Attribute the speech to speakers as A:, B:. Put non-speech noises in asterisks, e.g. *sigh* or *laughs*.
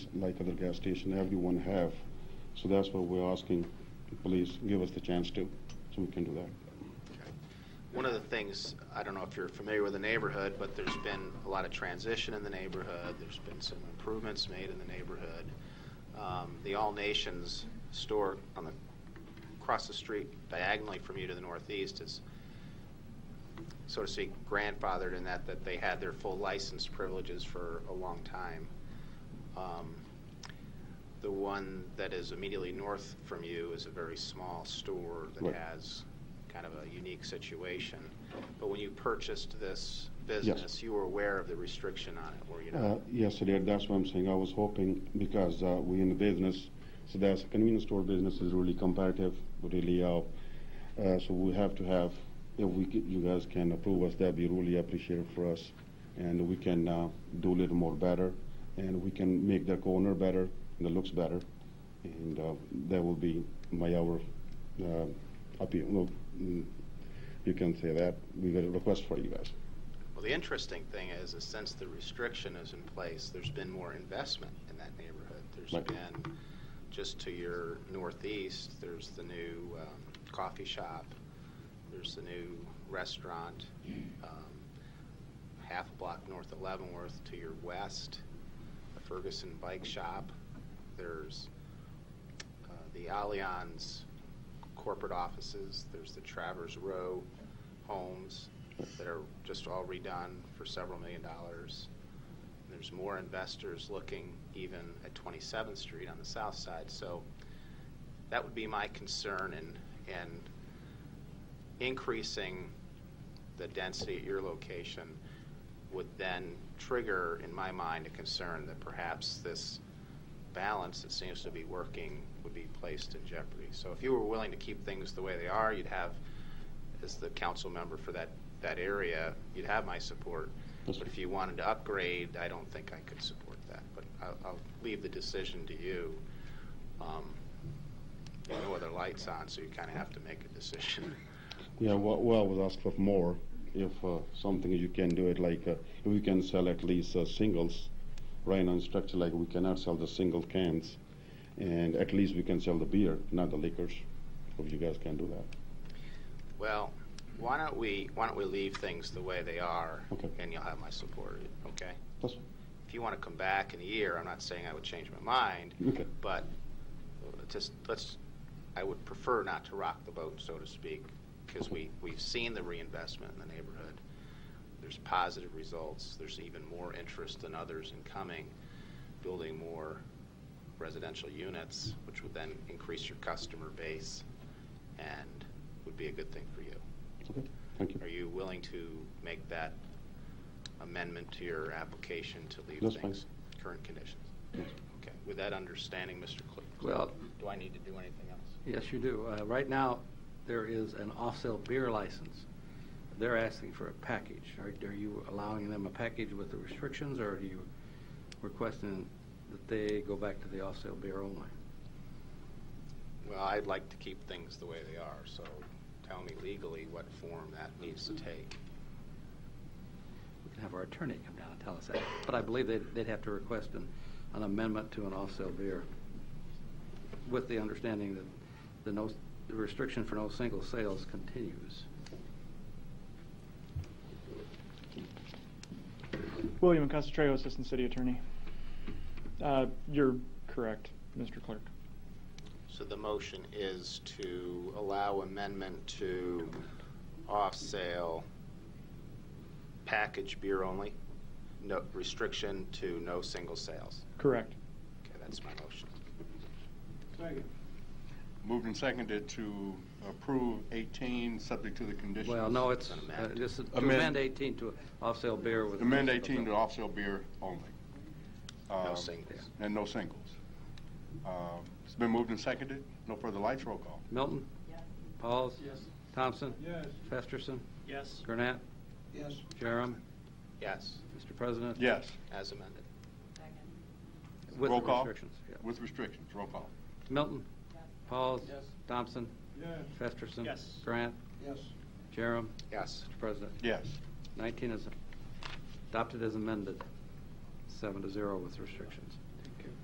A: like other gas station, everyone have. So that's what we're asking, please give us the chance to, so we can do that.
B: One of the things, I don't know if you're familiar with the neighborhood, but there's been a lot of transition in the neighborhood. There's been some improvements made in the neighborhood. Um, the All Nations store on the across the street diagonally from you to the northeast is so to speak grandfathered in that that they had their full license privileges for a long time. Um, the one that is immediately north from you is a very small store that
A: Right.
B: has kind of a unique situation. But when you purchased this business, you were aware of the restriction on it, were you
A: Uh,
B: not?
A: Yes, sir, Dad, that's what I'm saying. I was hoping, because uh, we in the business, so that's convenience store business is really competitive, really, uh, uh, so we have to have, if we, c- you guys can approve us, that'd be really appreciated for us. And we can uh, do a little more better, and we can make the corner better, and it looks better. And uh, that will be my our, uh, appeal, no, mm, you can say that, we got a request for you guys.
B: Well, the interesting thing is, is since the restriction is in place, there's been more investment in that neighborhood. There's
A: Right.
B: been, just to your northeast, there's the new um, coffee shop, there's the new restaurant, um, half a block north of Leavenworth to your west, the Ferguson Bike Shop, there's uh, the Allianz corporate offices, there's the Travers Row homes that are just all redone for several million dollars. There's more investors looking even at 27th Street on the south side. So that would be my concern in, in increasing the density at your location would then trigger, in my mind, a concern that perhaps this balance that seems to be working would be placed in jeopardy. So if you were willing to keep things the way they are, you'd have, as the council member for that, that area, you'd have my support.
A: Yes,
B: But
A: sir.
B: if you wanted to upgrade, I don't think I could support that. But I'll, I'll leave the decision to you. Um, there are no other lights on, so you kind of have to make a decision. *laughs*
A: Yeah, well, well, I was asked for more. If uh, something you can do it like uh, if we can sell at least uh, singles, right now in structure like we cannot sell the single cans, and at least we can sell the beer, not the liquors. If you guys can do that,
B: Well, why don't we, why don't we leave things the way they are?
A: Okay.
B: And you'll have my support, okay?
A: that's
B: If you want to come back in a year, I'm not saying I would change my mind,
A: okay.
B: but just, let's, I would prefer not to rock the boat, so to speak, because we, we've seen the reinvestment in the neighborhood. There's positive results. There's even more interest than others in coming, building more residential units, which would then increase your customer base and would be a good thing for you.
A: Okay, thank you.
B: Are you willing to make that amendment to your application to leave
A: That's fine.
B: things current conditions? Okay, with that understanding, Mr. Clerk,
C: Well-
B: do I need to do anything else?
C: Yes, you do. Uh, Right now, there is an off-sale beer license. They're asking for a package. Are are you allowing them a package with the restrictions, or are you requesting that they go back to the off-sale beer only?
B: Well, I'd like to keep things the way they are, so tell me legally what form that needs to take.
C: We can have our attorney come down and tell us that. But I believe they'd they'd have to request an an amendment to an off-sale beer with the understanding that the no, the restriction for no single sales continues.
D: William Concentrato, Assistant City Attorney. Uh, You're correct, Mr. Clerk.
B: So the motion is to allow amendment to off-sale package beer only, no, restriction to no single sales.
D: Correct.
B: Okay, that's my motion.
E: Moved and seconded to approve 18, subject to the conditions.
C: Well, no, it's,
B: An
C: uh,
B: amend.
C: just to
E: Amend.
C: amend 18 to off-sale beer with.
E: Amend
C: no single
E: 18 to
C: sale.
E: off-sale beer only.
B: No
E: Um,
B: singles.
E: And no singles. Um, It's been moved and seconded. No further lights. Roll call.
C: Milton?
F: Yes.
C: Pauls?
G: Yes.
C: Thompson?
G: Yes.
C: Festerson?
G: Yes.
C: Gurnett?
G: Yes.
C: Jerem?
B: Yes,
C: Mr. President?
E: Yes,
B: as amended.
F: Second.
C: With
E: Roll
C: the
E: call.
C: restrictions. yeah.
E: with restrictions. Roll call.
C: Milton?
F: Yes.
C: Pauls?
G: Yes.
C: Thompson?
G: Yes.
C: Festerson?
G: Yes.
C: Grant?
G: Yes.
C: Jerem?
B: Yes.
C: Mr. President?
E: Yes.
C: 19 is adopted as amended, seven to zero with restrictions.